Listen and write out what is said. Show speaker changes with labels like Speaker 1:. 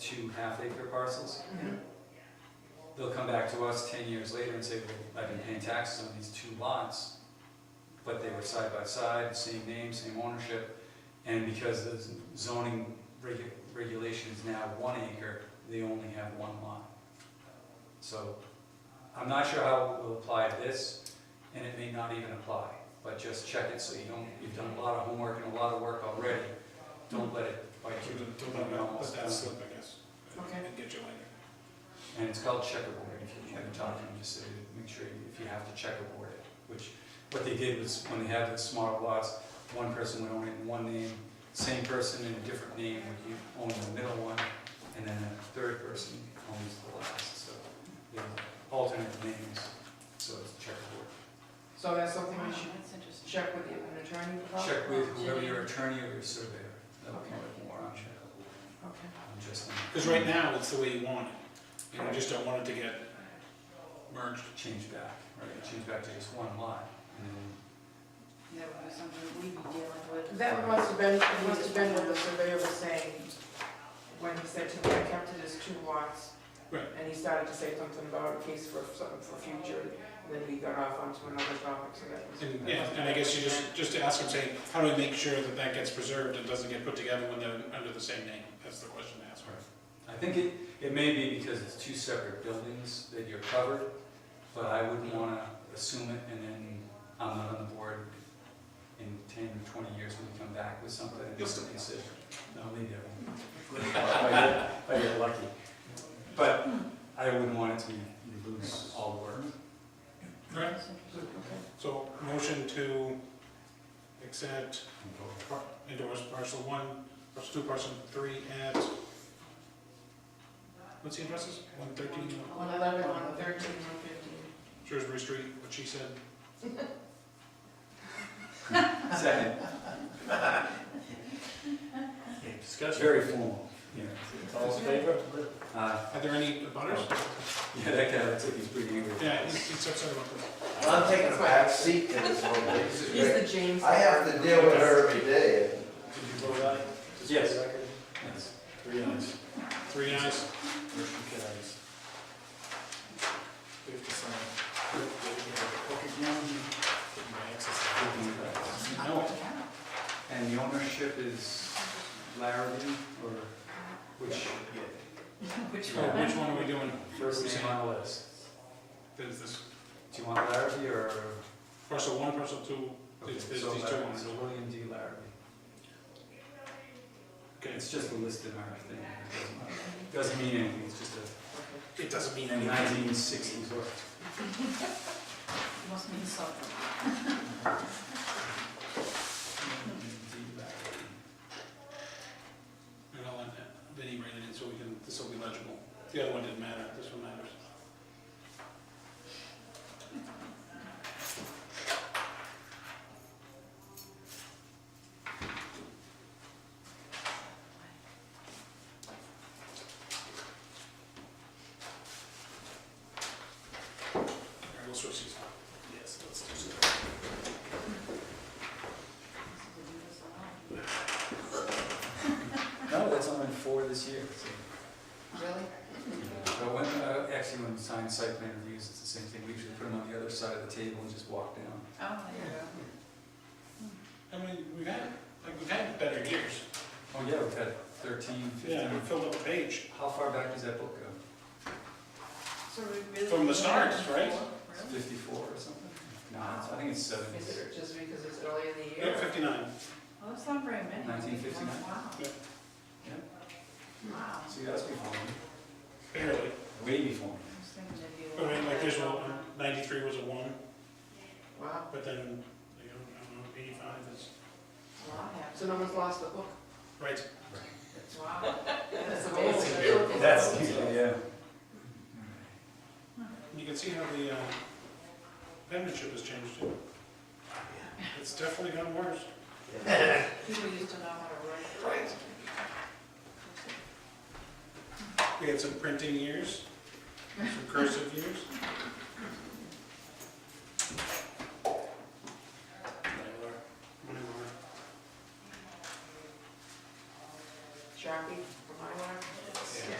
Speaker 1: two half-acre parcels. They'll come back to us ten years later and say, well, I've been paying taxes on these two lots, but they were side by side, same name, same ownership, and because the zoning regu- regulation is now one acre, they only have one lot. So, I'm not sure how it will apply to this, and it may not even apply, but just check it so you don't, you've done a lot of homework and a lot of work already, don't let it bite you.
Speaker 2: Don't let that, let that slip, I guess.
Speaker 3: Okay.
Speaker 2: And get you later.
Speaker 1: And it's called checkerboard, if you haven't talked to them, just say, make sure if you have to checkerboard it, which, what they did was, when they had the smart lots, one person would own it in one name, same person in a different name would own the middle one, and then a third person owns the last, so they alternate names, so it's checkerboard.
Speaker 3: So that's something
Speaker 4: Wow,
Speaker 3: we should
Speaker 4: that's interesting.
Speaker 3: check with an attorney about?
Speaker 1: Check with whoever your attorney or your surveyor, that would be more on check,
Speaker 3: Okay.
Speaker 1: I'm just
Speaker 2: Because right now, it's the way you want it, and you just don't want it to get merged.
Speaker 1: change back, right, change back to just one lot, and then
Speaker 4: That would be something that we'd be dealing with.
Speaker 3: That must have been, it must have been what the surveyor was saying, when he said to me, I kept it as two lots.
Speaker 2: Right.
Speaker 3: And he started to say something about a case for something for future, and then we got off onto another topic, so that was.
Speaker 2: And, yeah, and I guess you just, just to ask him, say, how do we make sure that that gets preserved and doesn't get put together when they're under the same name? That's the question to ask.
Speaker 1: I think it, it may be because it's two separate buildings that you're covered, but I wouldn't wanna assume it and then I'm not on the board in ten or twenty years when we come back with something.
Speaker 2: You'll still be on.
Speaker 1: consider. No, maybe I won't. If I get- if I get lucky. But I wouldn't want it to be, you lose all work.
Speaker 2: Right,
Speaker 4: That's interesting.
Speaker 2: so motion to accept, par- endorse parcel one, parcel two, parcel three at, what's the addresses? One thirteen
Speaker 3: One eleven, one thirteen, one fifteen.
Speaker 2: Shrewsbury Street, what she said.
Speaker 1: Second,
Speaker 5: Discussion.
Speaker 1: very formal, yeah.
Speaker 5: All in favor?
Speaker 1: Uh,
Speaker 2: Are there any butters?
Speaker 1: yeah, that guy looks like he's pretty angry.
Speaker 2: Yeah, he's he's upset about this.
Speaker 5: I'm taking a back seat to this one. This is
Speaker 3: He's
Speaker 5: great.
Speaker 3: the James.
Speaker 5: I have to deal with her every day.
Speaker 1: Yes. Yes.
Speaker 5: Three eyes.
Speaker 2: Three ayes,
Speaker 5: Motion carries. We have to sign.
Speaker 2: no.
Speaker 1: And the ownership is Larrabee, or which,
Speaker 4: Which
Speaker 2: So
Speaker 4: one?
Speaker 2: Oh, which one are we doing?
Speaker 1: first name on the list?
Speaker 2: There's this
Speaker 1: Do you want Larrabee or?
Speaker 2: parcel one, parcel two,
Speaker 1: okay,
Speaker 2: there's there's
Speaker 1: so
Speaker 2: these two
Speaker 1: Larrabee,
Speaker 2: ones.
Speaker 1: So William D. Larrabee.
Speaker 2: Okay,
Speaker 1: It's
Speaker 2: it's-
Speaker 1: just a list in our thing. It Doesn't matter. Doesn't mean anything, it's just a
Speaker 2: it doesn't mean anything.
Speaker 1: nineteen sixties work.
Speaker 4: Must mean something.
Speaker 2: And I'll let Vinnie write it in so we can, this will be legible. The other one didn't matter, this one matters. All right, we'll switch these. Yes, let's do so.
Speaker 4: Oh,
Speaker 1: No, that's only four this year, so.
Speaker 4: Really?
Speaker 1: But when, uh, actually, when we sign site plan reviews, it's the same thing, we usually put them on the other side of the table and just walk down.
Speaker 4: Oh, there you go.
Speaker 2: I mean, we've had, like, we've had better years.
Speaker 1: Oh, yeah, we've had thirteen,
Speaker 2: Yeah,
Speaker 1: fifteen.
Speaker 2: we filled up a page.
Speaker 1: How far back does that book go?
Speaker 4: So we really.
Speaker 2: From the start, right?
Speaker 1: It's
Speaker 4: Really?
Speaker 1: Fifty-four or something? No, it's- I think it's seventy.
Speaker 3: Is it just because it's early in the
Speaker 2: Yeah,
Speaker 3: year?
Speaker 2: fifty-nine.
Speaker 4: Well, that's not very many.
Speaker 1: 1959.
Speaker 4: Wow.
Speaker 2: Yeah.
Speaker 4: Wow.
Speaker 1: See, that's before me,
Speaker 2: Barely.
Speaker 1: way before me.
Speaker 4: I was thinking it'd be. a
Speaker 2: I mean, like, there's
Speaker 4: lot
Speaker 2: one, ninety-three was a one,
Speaker 3: Wow,
Speaker 2: but then, you know, I don't know, eighty-five is,
Speaker 4: better. A lot happened.
Speaker 3: so no one's lost the
Speaker 2: Oh,
Speaker 3: book?
Speaker 2: right,
Speaker 4: Wow.
Speaker 3: That's
Speaker 4: amazing.
Speaker 1: That's, yeah.
Speaker 2: you can see how the, uh, penmanship has changed too. It's definitely gotten worse.
Speaker 4: People used to know how to write.
Speaker 2: Right. We had some printing years, some cursive years.